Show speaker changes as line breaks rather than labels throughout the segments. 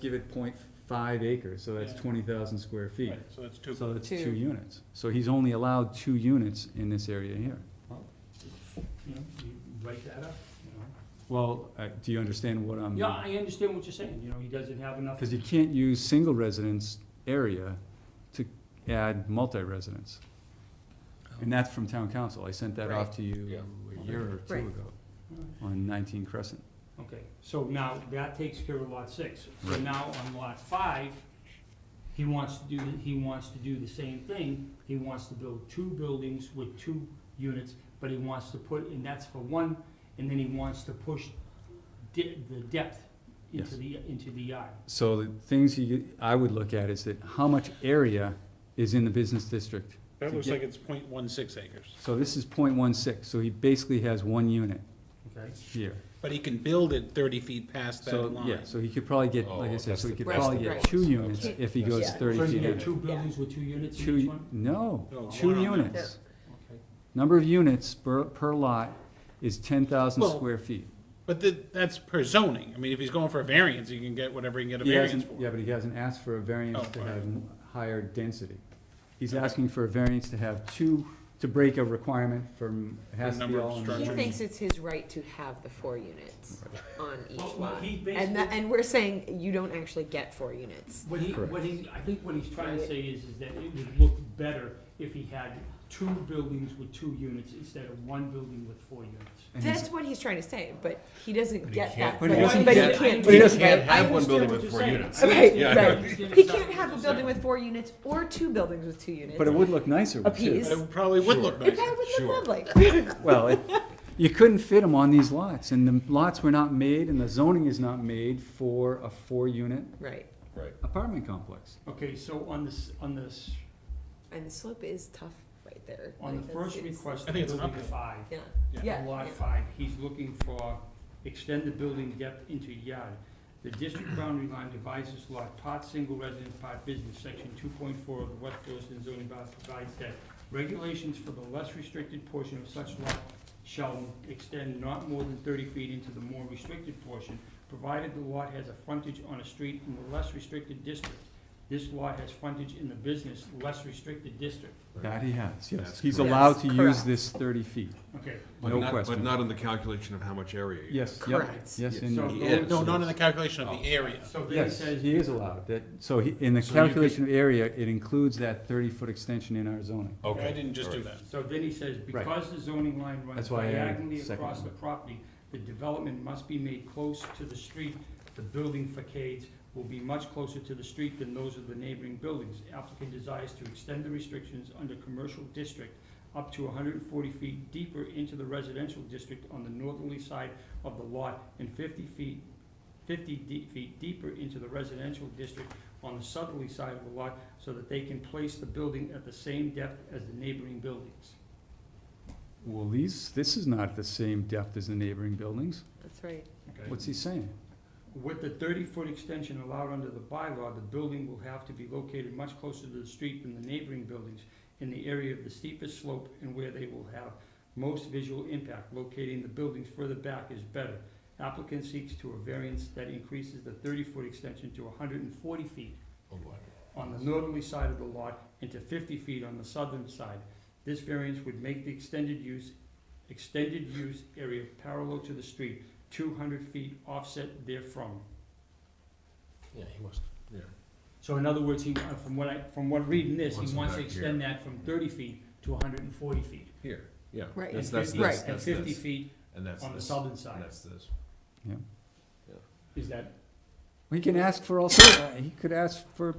give it 0.5 acres, so that's
Yeah.
twenty thousand square feet.
Right, So that's two.
So that's
Two.
two units. So he's only allowed two units in this area here.
You know, you write that up, you know.
Well, I- do you understand what I'm?
Yeah, I understand what you're saying, you know, he doesn't have enough.
Because you can't use single residence area to add multi-residence. And that's from town council. I sent that off to you a year or two
Right.
ago on nineteen Crescent.
Okay, so now that takes care of lot six. So
Right.
now on lot five, he wants to do, he wants to do the same thing. He wants to build two buildings with two units, but he wants to put, and that's for one, and then he wants to push de- the depth
Yes.
into the, into the yard.
So the things you, I would look at is that how much area is in the business district?
That
to
looks
get-
like it's point one six acres,
So this is 0.16. so he basically has one unit
Okay.
here.
but he can build it thirty feet past that
So,
line.
yeah, so he could probably get,
Oh,
like I said,
that's
so he
the-
could
that's
probably
the
get
balance.
two units
Okay.
if he goes
Yeah.
thirty
So you
feet
get
in.
two buildings with two units in each
Two,
one?
no,
No,
two
one on that.
units.
Okay.
Number of units per, per lot is ten thousand
Well,
square feet.
But th that's per zoning, I mean, if he's going for a variance, he can get whatever he can get a
He
variance
hasn't,
for.
yeah, but he hasn't asked for a variance
Oh,
to
all right.
have m- higher density. He's asking for a variance to have two, to break a requirement from, it has to be
number of
all in
He
structures.
one.
thinks it's his right to have the four units on each
Well, well,
lot.
he
And that,
basically-
and we're saying you don't actually get four units.
What he,
Correct.
what he, I think what he's trying to say is, is that it would look better if he had two buildings with two units instead of one building with four units.
And he's-
That's what he's trying to say, but he doesn't get that.
But he
right.
doesn't
But he
get-
can't
but he
do
doesn't
that.
get- I
have one
understand
building
what
with
you're
four
saying.
units.
Right,
Yeah.
right.
understand
He
exactly
can't have
what
a
you're
building
saying.
with four units or two buildings with two units.
But it would look nicer with two.
Apiece.
But it probably would look
It
nice.
probably would
Sure.
look lovely.
Well, it- you couldn't fit them on these lots, and the lots were not made, and the zoning is not made for a four-unit
Right,
Right.
apartment complex.
Okay, so on this, on this,
and the slope is tough right there.
on the
Like,
first
it's- it's-
request,
I think it's
building
uphill.
five,
Yeah,
Yeah.
yeah.
lot
yeah.
five, he's looking for extend the building depth into yard. The district boundary line divides this lot, part single residence, part business, section two point four of the West Boylston zoning bylaw provides that regulations for the less restricted portion of such lot shall extend not more than thirty feet into the more restricted portion, provided the lot has a frontage on a street in the less restricted district. This lot has frontage in the business, less restricted district.
That he has, yes.
That's
He's
correct.
allowed to
Yes,
use
correct.
this thirty feet.
Okay,
But
No
not-
question.
But not on the calculation of how much area. you-
Yes, yep,
Correct.
yes,
Yes.
and,
So-
Yeah.
No, not in the calculation of the
Oh.
area.
so then it
yes,
says.
he is allowed, that, so he, in the
So you could-
calculation of area, it includes that thirty-foot extension in our zoning.
Okay.
I didn't just do that.
So then he says,
Right.
because the zoning line runs
That's why I added
diagonally
second
across the
one.
property, the development must be made close to the street. The building facades will be much closer to the street than those of the neighboring buildings. Applicant desires to extend the restrictions under commercial district up to hundred and forty feet deeper into the residential district on the northerly side of the lot and fifty feet, fifty de- feet deeper into the residential district on the southerly side of the lot so that they can place the building at the same depth as the neighboring buildings.
Well, these, this is not the same depth as the neighboring buildings.
That's right.
What's he saying?
With the thirty-foot extension allowed under the bylaw, the building will have to be located much closer to the street than the neighboring buildings in the area of the steepest slope and where they will have most visual impact. Locating the buildings further back is better. Applicant seeks to a variance that increases the thirty-foot extension to hundred and forty feet on the northerly side of the lot and to fifty feet on the southern side. This variance would make the extended use, extended use area parallel to the street, two hundred feet offset therefrom.
Yeah, he must, yeah.
So in other words, he, uh, from what I, from what reading this,
Wants
he
it
wants to
back here.
extend that from thirty feet to hundred and forty feet.
Here, yeah.
Right.
That's,
and
that's
50
this,
Right.
And
that's
fifty
this.
feet
And that's
on the
this.
southern
And
side,
that's this.
is that,
He can ask for all sorts, uh, he could ask for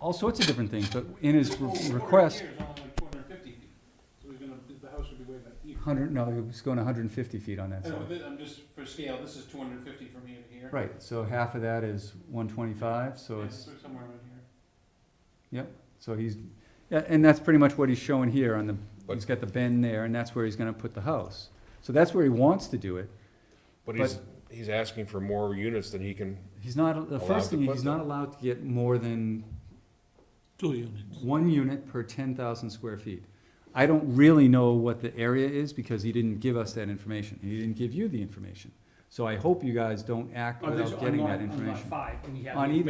all sorts of different things, but in his re- request,
so he's gonna, the house would be way back here.
hundred, no, he was going hundred and fifty feet on that side.
I'm just, for scale, this is two hundred and fifty from here to here.
Right, so half of that is one twenty-five, so it's,
Somewhere around here.
so he's, yeah, and that's pretty much what he's showing here on the,
But-
he's got the bend there, and that's where he's gonna put the house. So that's where he wants to do it.
But
he's-
he's, he's asking for more units than he can.
He's not, the
Allowed to
first thing,
put
he's not
them.
allowed to get more than
Two units.
one unit per ten thousand square feet. I don't really know what the area is because he didn't give us that information. He didn't give you the information. So I hope you guys don't act
oh, there's
without
on
getting
lot,
that
on lot
information.
five, and we have.
On
the
either